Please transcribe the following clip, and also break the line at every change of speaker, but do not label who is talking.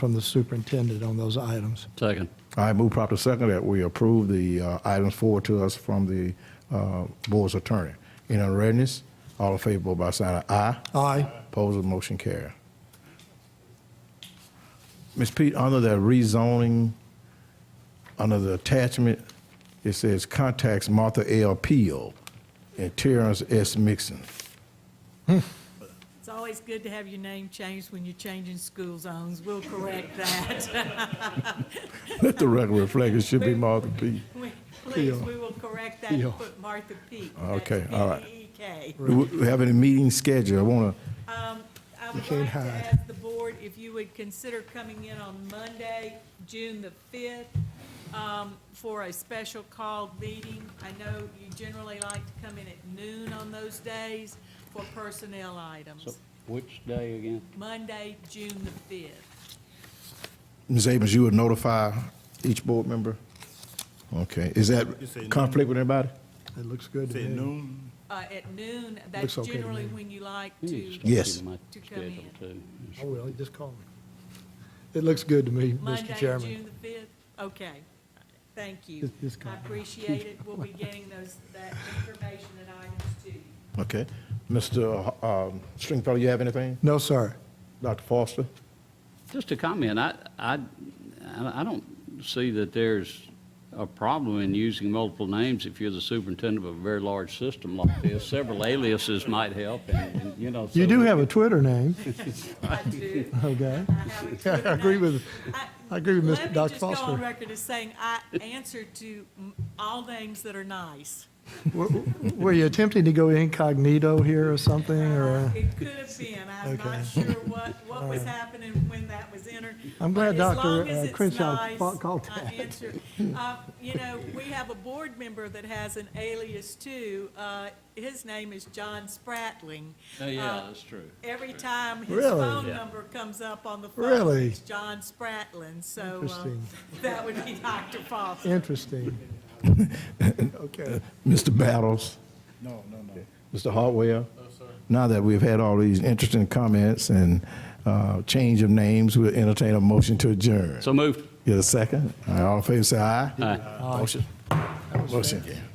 from the superintendent on those items.
Second.
All right, move proper second that we approve the uh, items forward to us from the uh, board's attorney. Any unreadness? All in favor, vote by sign of aye.
Aye.
Opposed, the motion carry. Ms. Pete, under the rezoning, under the attachment, it says contacts Martha L. Peel and Terrence S. Mixon.
It's always good to have your name changed when you're changing school zones. We'll correct that.
Let the record reflect, it should be Martha P.
We- Please, we will correct that
Yeah.
and put Martha Peak. That's E
Okay, all right.
P-E-E-K.
Do we have any meetings scheduled? I want to
I
You
would
can't
like to
hide.
ask the board if you would consider coming in on Monday, June the fifth, um, for a special called meeting. I know you generally like to come in at noon on those days for personnel
So
items.
which day again?
Monday, June the fifth.
Ms. Abrams, you would notify each board member? Okay, is that
You say no.
conflict with anybody?
It looks good to
Say
me.
noon,
Uh, at noon, that's
Looks okay to
generally
me.
when you like
You
to.
need to start
Yes.
keeping my
To come
schedule,
Oh,
too.
really? Just call me. It looks good to me, Mr.
Monday,
Chairman.
June the 5th? Okay, thank you.
It's- it's
I
gone.
appreciate it. We'll be getting those, that information and items to you.
Okay. Mr. Ho- um, Stringfellow, you have anything?
No, sir.
Dr. Foster?
Just a comment, I, I, I don't see that there's a problem in using multiple names if you're the superintendent of a very large system like this. Several aliases might help, and, and, you know.
You
so-
do have a Twitter name,
I do.
okay?
I have a Twitter
I agree
name.
with- I agree with Mr. Dr.
Let me just go
Foster.
on record as saying I answer to mm, all names that are nice.
W- w- Were you attempting to go incognito here or something, or?
It could have been. I'm
Okay.
not sure what, what was happening when that was entered.
I'm glad
But as
Dr.
long as
uh,
it's
Crenshaw
nice,
fa- called
I
that.
answer. Uh, You know, we have a board member that has an alias too. Uh, His name is John Spratling.
Oh,
Uh,
Yeah, that's true.
Every time his
Really?
phone
Yeah.
number comes up on the phone,
Really?
it's John Spratling. So uh,
Interesting.
that would be Dr. Foster.
Interesting. Okay.
Mr. Battles? No, no, no. Mr. Hartwell? No, sir. Now that we've had all these interesting comments and uh, change of names, we'll entertain a motion to adjourn.
So moved.
Get a second? All right, All in favor, say aye.
Aye.
Motion. Motion. carry.